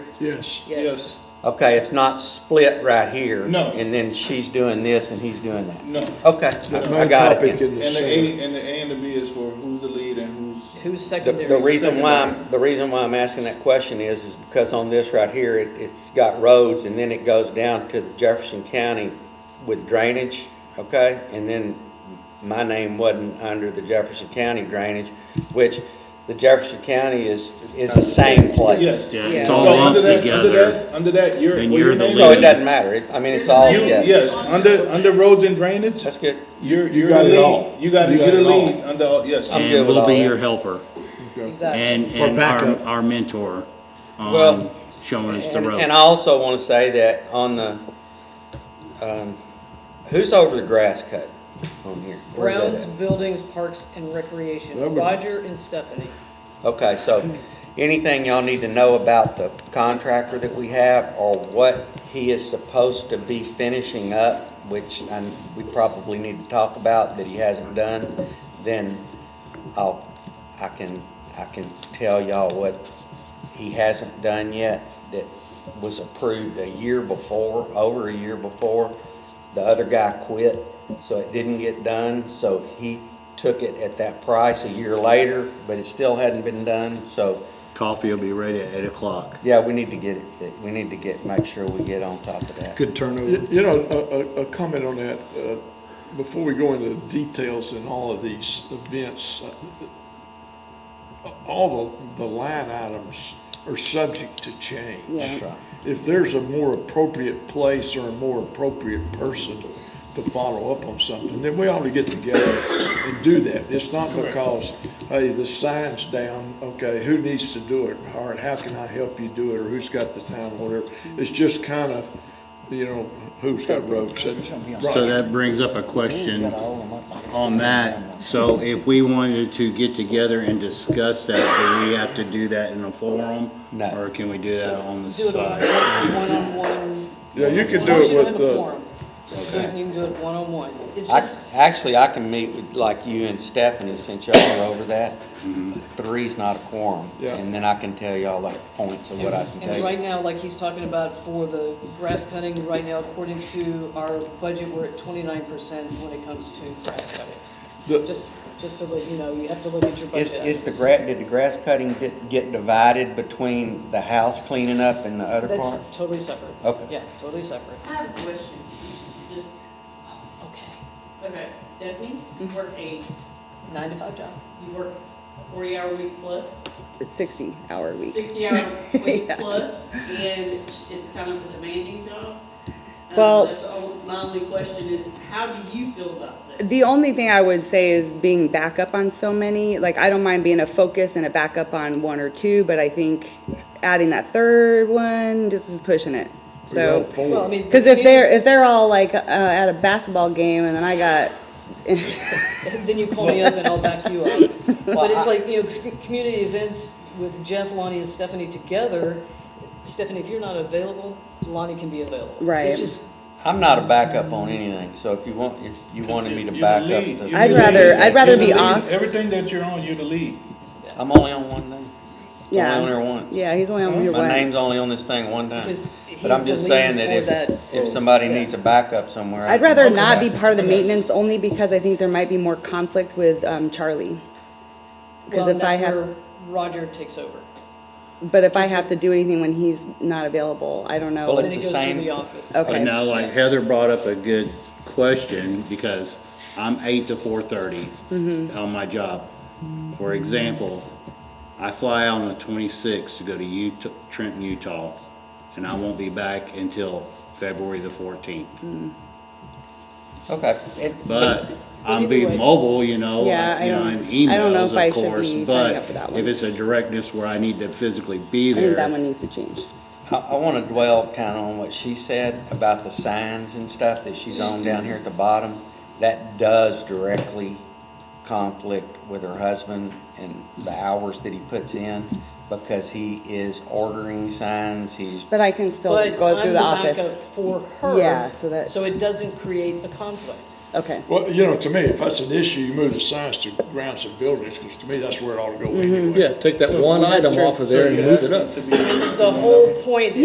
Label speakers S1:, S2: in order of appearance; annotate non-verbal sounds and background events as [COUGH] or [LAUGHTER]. S1: Yes.
S2: Yes.
S3: Okay, it's not split right here.
S2: No.
S3: And then she's doing this and he's doing that.
S2: No.
S3: Okay,
S1: That
S3: I I
S1: main
S3: got
S1: topic
S3: it.
S1: in the
S2: And the
S1: center.
S2: A, and the A and the B is for who's the lead and who's,
S4: Who's
S3: The,
S4: secondary?
S3: the reason why, I'm- the reason why I'm asking that question is, is because on this right here, it, it's got roads and then it goes down to Jefferson County with drainage, okay? And then my name wasn't under the Jefferson County drainage, which the Jefferson County is, is the same place.
S2: yes.
S5: Yeah, it's
S4: Yeah.
S5: all
S2: So under
S5: lumped
S2: that, under
S5: together.
S2: that, under that, you're,
S5: and
S2: well, your
S5: you're the
S2: name.
S3: So it
S5: lead.
S3: doesn't matter, It- I mean, it's all,
S2: You,
S3: yeah.
S2: yes, under, under roads and drainage,
S3: That's good.
S2: you're, you're
S1: got
S2: the
S1: it
S2: lead.
S1: all.
S2: You gotta
S1: You got
S2: get a
S1: it all.
S2: lead under, all- yes.
S3: I'm good
S5: And
S3: with all
S5: we'll be
S3: that.
S5: your helper
S4: Exactly.
S5: and, and
S1: backup.
S5: our, our mentor on
S3: Well,
S5: showing us the
S3: And-
S5: road.
S3: And I also want to say that on the, um, who's over the grass cut on here? Where's that
S4: Browns,
S3: at?
S4: buildings, parks, and recreation,
S1: Number-
S4: Roger and Stephanie.
S3: Okay, so anything y'all need to know about the contractor that we have or what he is supposed to be finishing up, which i we probably need to talk about that he hasn't done, then I'll, I can, I can tell y'all what he hasn't done yet that was approved a year before, over a year before. The other guy quit, so it didn't get done, so he took it at that price a year later, but it still hadn't been done, so,
S5: Coffee will be ready at eight o'clock.
S3: yeah, we need to get it, fi- we need to get, make sure we get on top of that.
S1: Good turnover. You know, a, a, a comment on that, uh, before we go into the details in all of these events, uh, all the, the line items are subject to change.
S3: That's right.
S1: If there's a more appropriate place or a more appropriate person to follow up on something, then we ought to get together and do that. It's not because, hey, the sign's down, okay, who needs to do it? All right, how can I help you do it, or who's got the time, whatever. It's just kind of, you know, who's got roads. That's-
S5: So
S1: right.
S5: that brings up a question on that. So if we wanted to get together and discuss that, do we have to do that in a forum?
S3: No.
S5: Or can we do that on the
S4: Do it on
S5: side?
S4: one-on-one.
S1: Yeah, you
S4: As
S1: could do
S4: long as you
S1: it
S4: don't have
S1: with,
S4: a
S1: uh,
S4: quorum. Just do it, You can do it one-on-one. It's
S3: I,
S4: just,
S3: actually, I can meet with, like you and Stephanie, since y'all are over that. Three's not a quorum.
S1: Yeah.
S3: And then I can tell y'all like points of what I can
S4: and
S3: tell
S4: right
S3: you.
S4: now, like he's talking about for the grass cutting, right now, according to our budget, we're at twenty-nine percent when it comes to grass cutting.
S1: the-
S4: Just, just so that, you know, you have to look at your
S3: Is,
S4: budget.
S3: is the gra, did the grass cutting get, get divided between the house cleaning up and the other
S4: That's
S3: part?
S4: totally separate.
S3: Okay.
S4: Yeah, totally separate.
S6: I have a question, just,
S4: Okay.
S6: okay, Stephanie, you work a,
S4: Nine to five job.
S6: you work a forty-hour week plus,
S7: It's 60 hour week. [LAUGHS]
S6: sixty-hour week
S7: Yeah.
S6: plus, and it's kind of a demanding job. Um,
S7: Well-
S6: that's all- My only question is, how do you feel about that?
S7: The only thing I would say is being backup on so many, like I don't mind being a focus and a backup on one or two, but I think adding that third one just is pushing it.
S1: we got
S7: So,
S1: four.
S4: Well, I mean.
S7: because if they're, if they're all like uh, at a basketball game and then I got,
S4: Then you call me up and I'll back you
S3: [LAUGHS]
S4: up. But it's like, you know, c- community events with Jeff, Lonnie, and Stephanie together. Stephanie, if you're not available, Lonnie can be available.
S7: Right.
S4: It's just,
S3: I'm not a backup on anything, so if you want, if you wanted me to back up
S2: You're the lead.
S3: the.
S2: You're
S7: I'd
S2: the
S7: rather-
S2: lead.
S7: I'd rather
S2: You're the
S7: be
S2: lead.
S7: off.
S2: Everything that you're on, you're the lead.
S3: I'm only on one thing.
S7: yeah.
S3: I'm only on there once.
S7: Yeah, he's only on here
S3: My name's
S7: once.
S3: only on this thing one time.
S4: Because
S3: But I'm
S4: he's the
S3: just saying
S4: lead for
S3: that
S4: that-
S3: if, if somebody
S4: Yeah.
S3: needs a backup somewhere. I
S7: I'd
S3: can
S7: rather
S3: look at
S7: not
S3: that.
S7: be part of the maintenance only because I think there might be more conflict with um, Charlie.
S4: well,
S7: Because
S4: and
S7: if I
S4: that's
S7: have.
S4: where Roger takes over.
S7: But if I have to do anything when he's not available, I don't
S3: Well,
S7: know.
S4: Then
S3: it's
S4: he
S3: the
S4: goes through
S3: same-
S4: the office.
S5: But
S7: Okay.
S5: now, like Heather brought up a good question, because I'm eight to four thirty
S7: Mm-hmm.
S5: on my job. For example, I fly out on the twenty-sixth to go to Utah, Trenton, Utah, and I won't be back until February the fourteenth.
S7: Mm-hmm.
S3: Okay, it-
S5: But I'm
S4: either way-
S5: being mobile, you know,
S7: Yeah,
S5: I-
S7: I
S5: you know,
S7: don't-
S5: and
S7: I don't know if
S5: emails,
S7: I
S5: of
S7: should
S5: course,
S7: be signing up
S5: but
S7: for that one.
S5: if it's a directness where I need to physically be
S7: I think that one
S5: there,
S7: needs to change.
S3: I, I want to dwell kind of on what she said about the signs and stuff that she's on down here at the bottom. That does directly conflict with her husband and the hours that he puts in because he is ordering signs, he's,
S7: But I can still
S4: But
S7: go
S4: I'm
S7: through
S4: the
S7: the office.
S4: backup for her.
S7: Yeah, so that-
S4: So it doesn't create a conflict.
S7: Okay,
S1: Well, you know, to me, if that's an issue, you move the signs to grounds and buildings, because to me,
S4: Mm-hmm.
S1: that's where it ought to go anyway.
S5: Yeah, take that one
S7: That's
S5: item
S7: true.
S5: off of there and move it up.
S8: To be-
S4: The whole point